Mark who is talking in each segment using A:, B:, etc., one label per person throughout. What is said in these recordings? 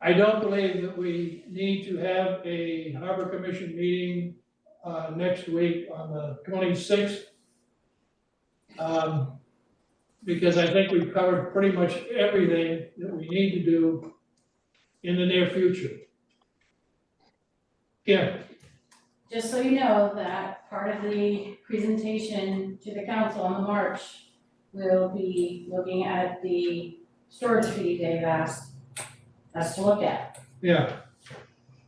A: I don't believe that we need to have a harbor commission meeting, uh, next week on the twenty-sixth. Um, because I think we've covered pretty much everything that we need to do in the near future. Yeah,
B: Just so you know, that part of the presentation to the council on the March will be looking at the storage fee they've asked us to look at.
A: yeah,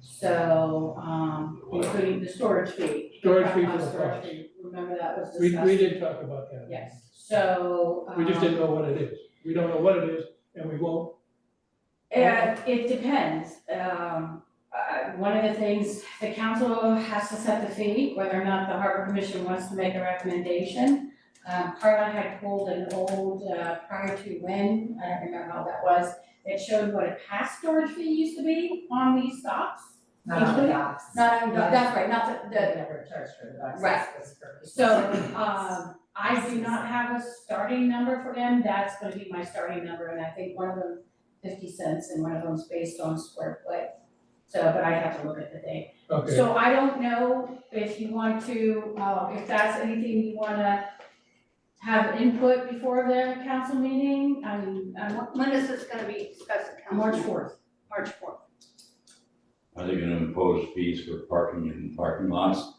B: So, um, including the storage fee.
A: Storage fee for
B: Uh,
A: the
B: storage fee. Remember that was
A: we,
B: discussed?
A: we did talk about that.
B: Yes, so,
A: We just didn't
B: um,
A: know what it is. We don't know what it is and we won't.
B: Uh, it depends, um, uh, one of the things, the council has to set the fee, whether or not the harbor commission wants to make a recommendation. Um, Carla had pulled an old, uh, prior to when, I don't remember how that was, that showed what a past storage fee used to be on these docks.
C: Not on the
B: Usually-
C: docks.
B: Not, on- that's right, not the, the,
C: Um, They never charged for the docks.
B: Right.
C: That's for-
B: So,
D: uh,
B: um, I do not have a starting number for them, that's gonna be my starting number, and I think one of them fifty cents and one of them's based on square foot. So, but I have to look at the date.
A: Okay,
B: So I don't know if you want to, uh, if that's anything you wanna have input before the council meeting, I mean, um,
D: When is this gonna be discussed at council?
B: March
D: meeting?
B: fourth.
D: March fourth.
E: Are they gonna impose fees for parking in parking lots?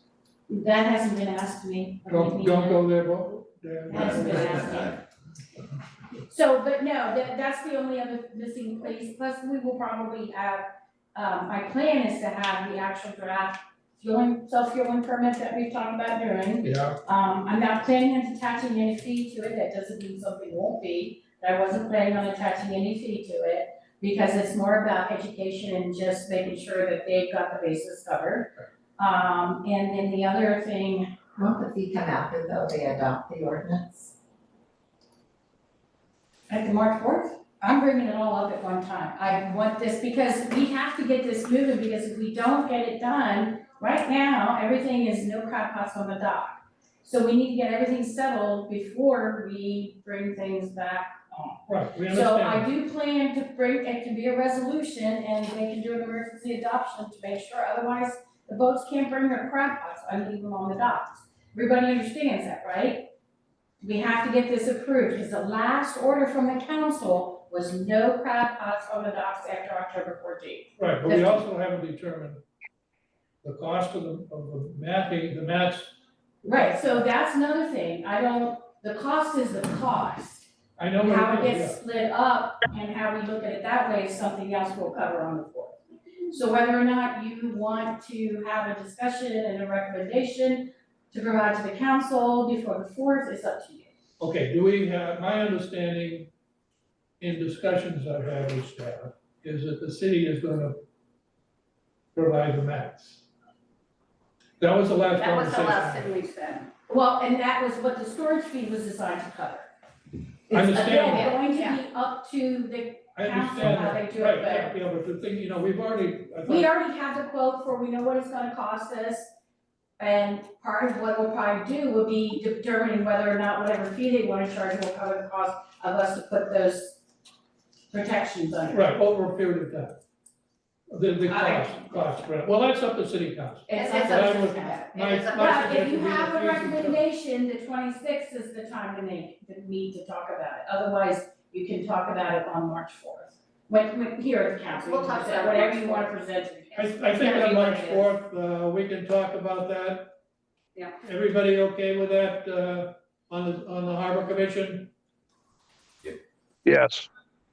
B: That hasn't been asked to me. I
A: don't,
B: mean,
A: don't go there, Bo. there-
B: That's a good idea. So, but no, that, that's the only other missing place, plus we will probably have, um, my plan is to have the actual draft fueling, self-fueling permit that we've talked about doing.
A: Yeah,
B: Um, I'm not planning on attaching any fee to it, that doesn't mean something won't be, but I wasn't planning on attaching any fee to it, because it's more about education and just making sure that they've got the bases covered. Um, and then the other thing,
C: Won't the fee come after though they adopt the ordinance?
B: At the March fourth? I'm bringing it all up at one time. I want this because we have to get this moving because if we don't get it done, right now, everything is no crap pots on the dock. So we need to get everything settled before we bring things back on.
A: right, we
B: So
A: understand.
B: I do plan to bring, it can be a resolution and they can do an emergency adoption to make sure, otherwise the boats can't bring their crab pots and leave them on the docks. Everybody understands that, right? We have to get this approved, because the last order from the council was no crab pots on the docks after October fourteenth.
A: Right, but we also haven't determined the cost of the, of the mapping, the mats,
B: Right, so that's another thing, I don't, the cost is the cost.
A: I know
B: How
A: what
B: it
A: it is,
B: gets split up and how we look at it that way is something else we'll cover on the fourth. So whether or not you want to have a discussion and a recommendation to provide to the council before the fourth, it's up to you.
A: yeah. Okay, do we have, my understanding in discussions I've had with staff is that the city is gonna provide the mats. That was the last
D: That was the
A: conversation.
D: last thing we said.
B: Well, and that was what the storage fee was designed to cover.
A: I understand,
B: Again,
A: that.
B: going to be up to the,
A: I
B: council
A: understand
B: how
A: that,
B: they do it,
A: right, yeah, yeah, but the thing, you know, we've already, I
B: we
A: thought,
B: already have the quote for, we know what it's gonna cost us. And part of what we'll probably do will be determining whether or not whatever fee they wanna charge will cover the cost of us to put those protections under.
A: right, over a period of time. The, the
B: I-
A: cost, cost, right, well, that's up to city council.
B: It's
D: It's
B: up
A: up
B: to
A: to
B: us to have.
A: My-
D: It is up-
A: my
B: But if you
A: suggestion
B: have a
A: is that we-
B: recommendation, the twenty-sixth is the time to make, to meet to talk about it, otherwise you can talk about it on March fourth. When, when, here at the council, you
D: We'll
B: can
D: talk
B: present
D: about it on
B: whatever you wanna
D: March
B: present to the
A: I,
B: council.
A: I think
B: It's gotta
A: on
B: be what
A: March
B: it is.
A: fourth, uh, we can talk about that.
D: Yeah.
A: Everybody okay with that, uh, on the, on the harbor commission?
F: Yes.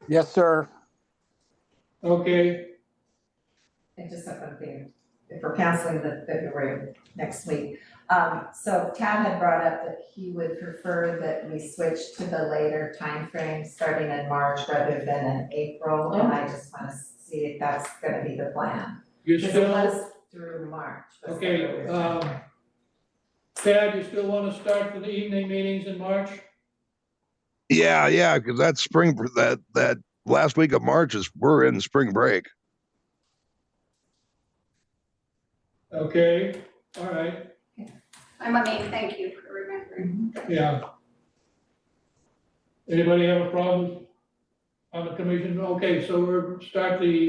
F: Yes, sir.
A: Okay,
C: And just something, if we're canceling the February next week. Um, so Tad had brought up that he would prefer that we switch to the later time frame, starting in March rather than in April. And I just wanna see if that's gonna be the plan.
A: you
C: Because it
A: still,
C: was through March. was the
A: okay,
C: earlier
A: um,
C: time.
A: Tad, you still wanna start the evening meetings in March?
F: Yeah, yeah, because that spring br- that that last week of March is we're in spring break.
A: Okay, all right,
D: I'm, I mean, thank you for remembering.
A: yeah. Anybody have a problem on the commission? Okay, so we're, start the